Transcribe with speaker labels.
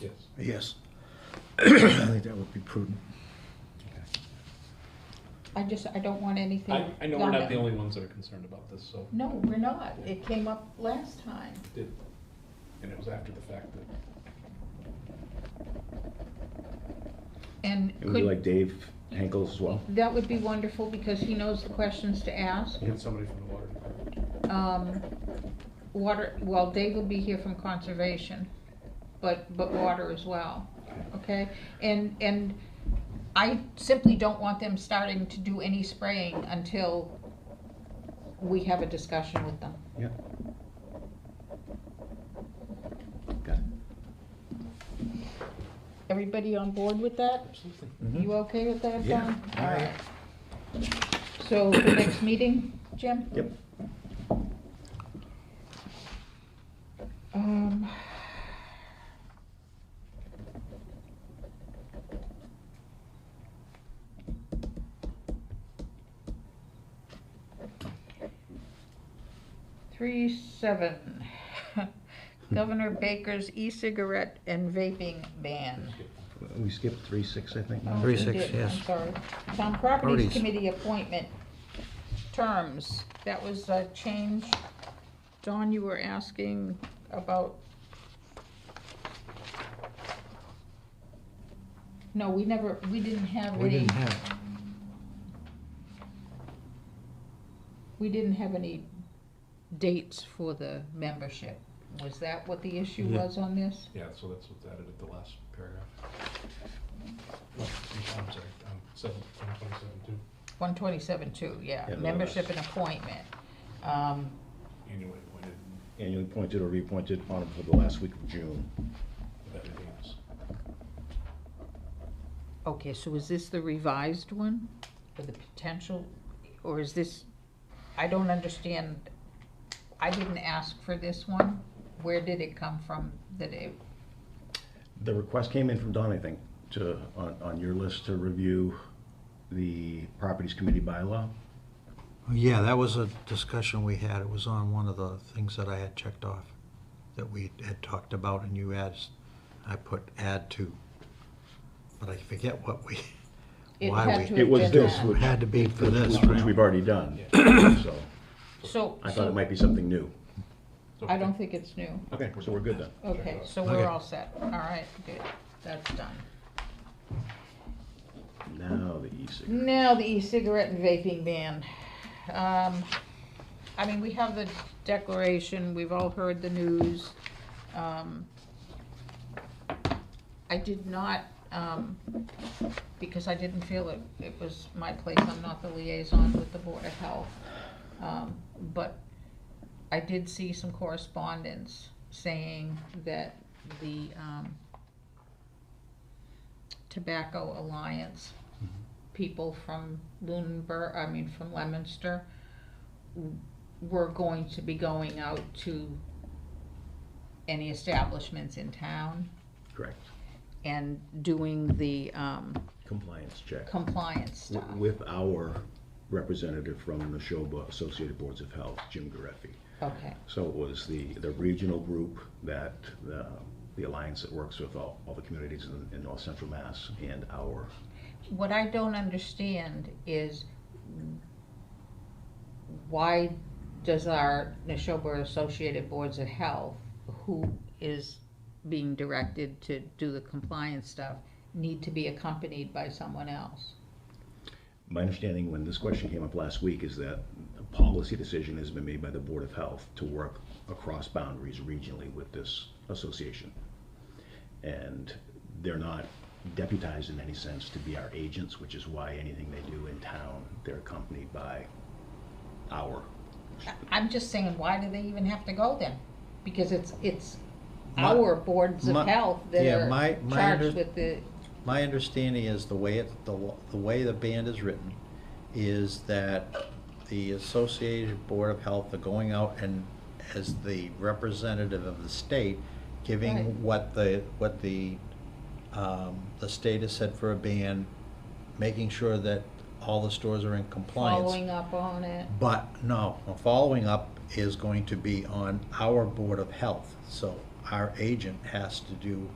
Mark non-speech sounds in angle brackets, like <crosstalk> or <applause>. Speaker 1: Yes.
Speaker 2: Yes. I think that would be prudent.
Speaker 3: I just, I don't want anything.
Speaker 1: I, I know we're not the
Speaker 3: done.
Speaker 1: only ones that are concerned about this, so,
Speaker 3: No, we're not. It came up last time.
Speaker 1: did, and it was after the fact that,
Speaker 3: And
Speaker 4: It would be like
Speaker 3: could,
Speaker 4: Dave Henkel as well.
Speaker 3: that would be wonderful because he knows the questions to ask.
Speaker 1: and somebody from the water department.
Speaker 3: Um, water, well, Dave will be here from conservation, but, but water as well, okay? And, and I simply don't want them starting to do any spraying until we have a discussion with them.
Speaker 4: Yeah. Got it.
Speaker 3: Everybody on board with that?
Speaker 1: Absolutely.
Speaker 3: You okay with that,
Speaker 4: Mm-hmm. Yeah.
Speaker 3: Don? All right. So the next meeting, Jim?
Speaker 4: Yep.
Speaker 3: Um, Three, seven. <laughs> Governor Baker's e-cigarette and vaping ban.
Speaker 4: We skipped three, six, I think. now.
Speaker 3: Oh,
Speaker 5: Three,
Speaker 3: we
Speaker 5: six,
Speaker 3: did,
Speaker 5: yes.
Speaker 3: I'm sorry. Town Properties
Speaker 5: Properties.
Speaker 3: Committee appointment terms, that was a change. Don, you were asking about. No, we never, we didn't have
Speaker 5: We
Speaker 3: any,
Speaker 5: didn't have,
Speaker 3: we didn't have any dates for the membership. Was that what the issue
Speaker 5: Yeah.
Speaker 3: was on this?
Speaker 1: Yeah, so that's what's added at the last paragraph. Well, I'm sorry, um, seven, twenty-seven, two,
Speaker 3: One twenty-seven two, yeah,
Speaker 4: Yeah.
Speaker 3: membership and appointment. Um,
Speaker 1: annually appointed,
Speaker 4: Annually appointed or reappointed on for the last week of June.
Speaker 1: with everything else.
Speaker 3: Okay, so is this the revised one for the potential, or is this, I don't understand, I didn't ask for this one. Where did it come from that it,
Speaker 4: The request came in from Don, I think, to, on, on your list to review the Properties Committee bylaw.
Speaker 5: yeah, that was a discussion we had. It was on one of the things that I had checked off that we had talked about and you asked, I put add to. But I forget what we,
Speaker 3: it
Speaker 5: Why
Speaker 3: had
Speaker 5: we-
Speaker 3: to
Speaker 4: It
Speaker 3: have
Speaker 4: was
Speaker 3: been
Speaker 4: this
Speaker 3: that.
Speaker 4: one.
Speaker 5: it had to be for this,
Speaker 4: Which
Speaker 5: right?
Speaker 4: we've already done, so
Speaker 3: So,
Speaker 4: I thought it
Speaker 3: so,
Speaker 4: might be something new.
Speaker 1: So
Speaker 3: I don't think it's new.
Speaker 4: Okay, so we're good then.
Speaker 3: Okay, so
Speaker 5: Okay.
Speaker 3: we're all set. All right, good, that's done.
Speaker 4: Now the E e-cigarette.
Speaker 3: Now the e-cigarette and vaping ban. Um, I mean, we have the declaration, we've all heard the news. Um, I did not, um, because I didn't feel it, it was my place, I'm not the liaison with the Board of Health. Um, But I did see some correspondence saying that the um, Tobacco Alliance people from Lunenburg, I mean, from Lemonster, w- were going to be going out to any establishments in town
Speaker 4: Correct.
Speaker 3: and doing the um,
Speaker 4: Compliance check.
Speaker 3: compliance stuff.
Speaker 4: W- With our representative from the Neshoba Associated Boards of Health, Jim Gareffi.
Speaker 3: Okay,
Speaker 4: So it was the, the regional group that, the, the alliance that works with all, all the communities in, in north central Mass and our,
Speaker 3: what I don't understand is why does our Neshoba Associated Boards of Health, who is being directed to do the compliance stuff, need to be accompanied by someone else?
Speaker 4: my understanding when this question came up last week is that a policy decision has been made by the Board of Health to work across boundaries regionally with this association. And they're not deputized in any sense to be our agents, which is why anything they do in town, they're accompanied by our
Speaker 3: I'm just saying, why do they even have to go then? Because it's, it's
Speaker 5: My-
Speaker 3: our boards of
Speaker 5: my-
Speaker 3: health that
Speaker 5: yeah,
Speaker 3: are
Speaker 5: my- my under-
Speaker 3: charged with the,
Speaker 5: My understanding is the way it, the, law- the way the band is written is that the Associated Board of Health are going out and as the representative of the state,
Speaker 3: Right.
Speaker 5: giving what the, what the, um, the state has said for a ban, making sure that all the stores are in compliance.
Speaker 3: following up on it.
Speaker 5: But no, the following up is going to be on our Board of Health. So our agent has to do